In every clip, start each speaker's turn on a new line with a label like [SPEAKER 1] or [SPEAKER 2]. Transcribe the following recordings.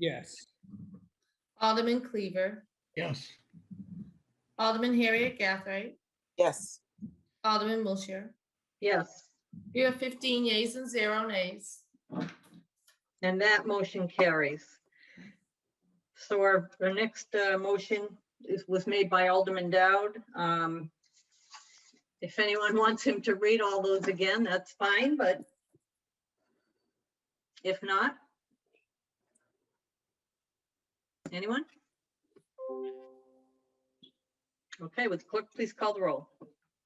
[SPEAKER 1] Yes.
[SPEAKER 2] Alderman Cleaver,
[SPEAKER 1] Yes.
[SPEAKER 2] Alderman Harriet Gathright,
[SPEAKER 3] Yes.
[SPEAKER 2] Alderman Wiltshire.
[SPEAKER 4] Yes,
[SPEAKER 2] You have fifteen yeas and zero nays.
[SPEAKER 4] and that motion carries. So our, our next uh, motion is, was made by Alderman Dowd. Um, If anyone wants him to read all those again, that's fine, but if not? Anyone? Okay, would the clerk please call the roll?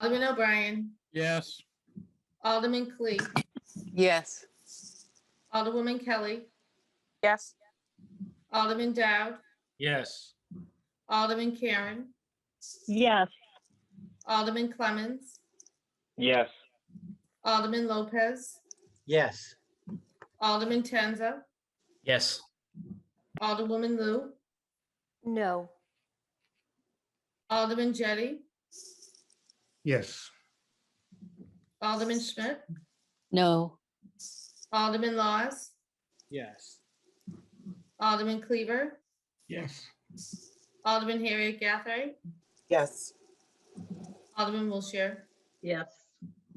[SPEAKER 2] Alderman O'Brien,
[SPEAKER 1] Yes.
[SPEAKER 2] Alderman Clee,
[SPEAKER 3] Yes.
[SPEAKER 2] Alderwoman Kelly,
[SPEAKER 3] Yes.
[SPEAKER 2] Alderman Dowd,
[SPEAKER 1] Yes.
[SPEAKER 2] Alderman Karen,
[SPEAKER 5] Yes,
[SPEAKER 2] Alderman Clemmons,
[SPEAKER 6] Yes.
[SPEAKER 2] Alderman Lopez,
[SPEAKER 6] Yes.
[SPEAKER 2] Alderman Tenza,
[SPEAKER 6] Yes.
[SPEAKER 2] Alderwoman Lou,
[SPEAKER 7] No.
[SPEAKER 2] Alderman Jettie,
[SPEAKER 1] Yes.
[SPEAKER 2] Alderman Schmidt,
[SPEAKER 7] No.
[SPEAKER 2] Alderman Laws,
[SPEAKER 1] Yes.
[SPEAKER 2] Alderman Cleaver,
[SPEAKER 1] Yes.
[SPEAKER 2] Alderman Harriet Gathright,
[SPEAKER 3] Yes.
[SPEAKER 2] Alderman Wiltshire.
[SPEAKER 4] Yes.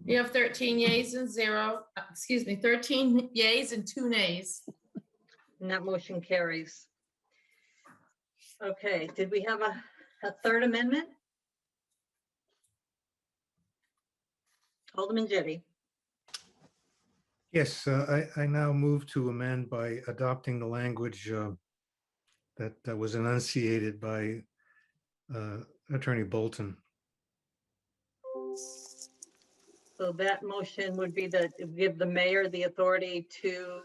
[SPEAKER 2] You have thirteen yays and zero, uh, excuse me, thirteen yays and two nays.
[SPEAKER 4] And that motion carries. Okay, did we have a, a third amendment? Alderman Jettie,
[SPEAKER 8] Yes, uh, I, I now move to amend by adopting the language uh, that that was enunciated by uh, Attorney Bolton.
[SPEAKER 4] so that motion would be that it would give the mayor the authority to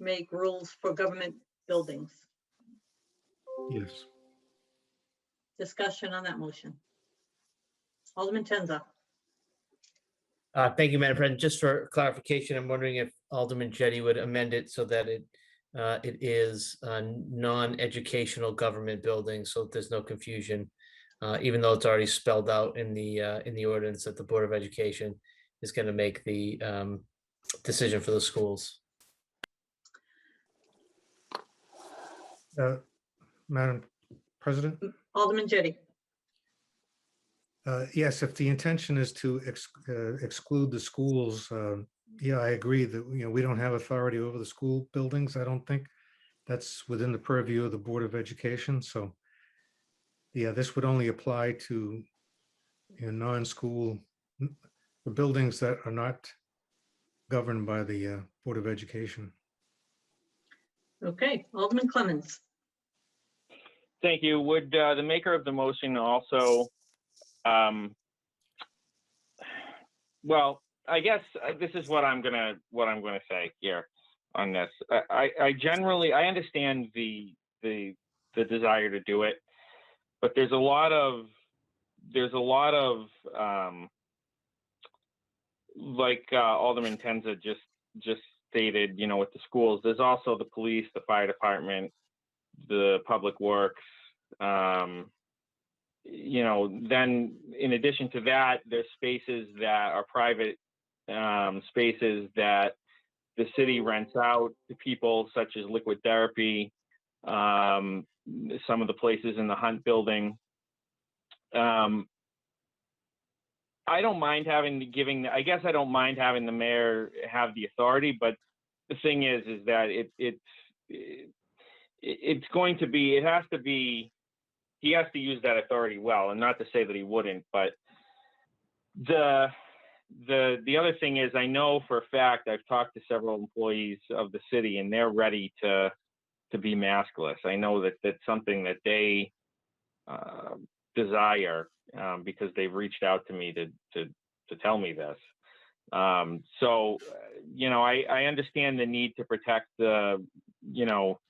[SPEAKER 4] make rules for government buildings.
[SPEAKER 8] Yes.
[SPEAKER 4] Discussion on that motion. Alderman Tenza,
[SPEAKER 6] Uh, thank you, Madam President. Just for clarification, I'm wondering if Alderman Jettie would amend it so that it uh, it is a non-educational government building, so there's no confusion. Uh, even though it's already spelled out in the uh, in the ordinance that the Board of Education is going to make the um, decision for the schools.
[SPEAKER 8] Uh, Madam President?
[SPEAKER 4] Alderman Jettie,
[SPEAKER 8] Uh, Yes, if the intention is to ex- uh, exclude the schools, um, yeah, I agree that, you know, we don't have authority over the school buildings. I don't think that's within the purview of the Board of Education, so yeah, this would only apply to, you know, non-school, n- the buildings that are not governed by the uh, Board of Education.
[SPEAKER 4] okay, Alderman Clemmons,
[SPEAKER 9] Thank you. Would uh, the maker of the motion also, um, well, I guess uh, this is what I'm gonna, what I'm gonna say here on this. I- I, I generally, I understand the, the, the desire to do it, but there's a lot of, there's a lot of, um, like uh, Alderman Tenza just, just stated, you know, with the schools, there's also the police, the fire department, the public works. Um, you know, then in addition to that, there's spaces that are private um, spaces that the city rents out to people, such as liquid therapy, um, some of the places in the Hunt building. Um, I don't mind having giving. I guess I don't mind having the mayor have the authority, but the thing is, is that it it's it- it's going to be it has to be he has to use that authority well and not to say that he wouldn't but the the the other thing is i know for a fact i've talked to several employees of the city and they're ready to to be maskless i know that that's something that they uh, desire um, because they've reached out to me to to to tell me this um, so uh, you know i i understand the need to protect the you know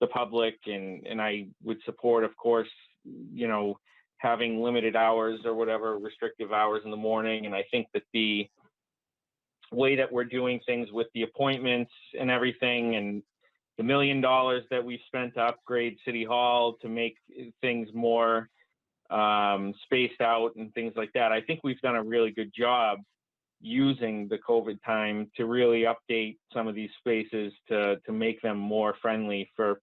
[SPEAKER 9] the public and and I would support of course you know having limited hours or whatever restrictive hours in the morning and I think that the way that we're doing things with the appointments and everything and the million dollars that we've spent to upgrade city hall to make things more um, spaced out and things like that I think we've done a really good job using the COVID time to really update some of these spaces to to make them more friendly for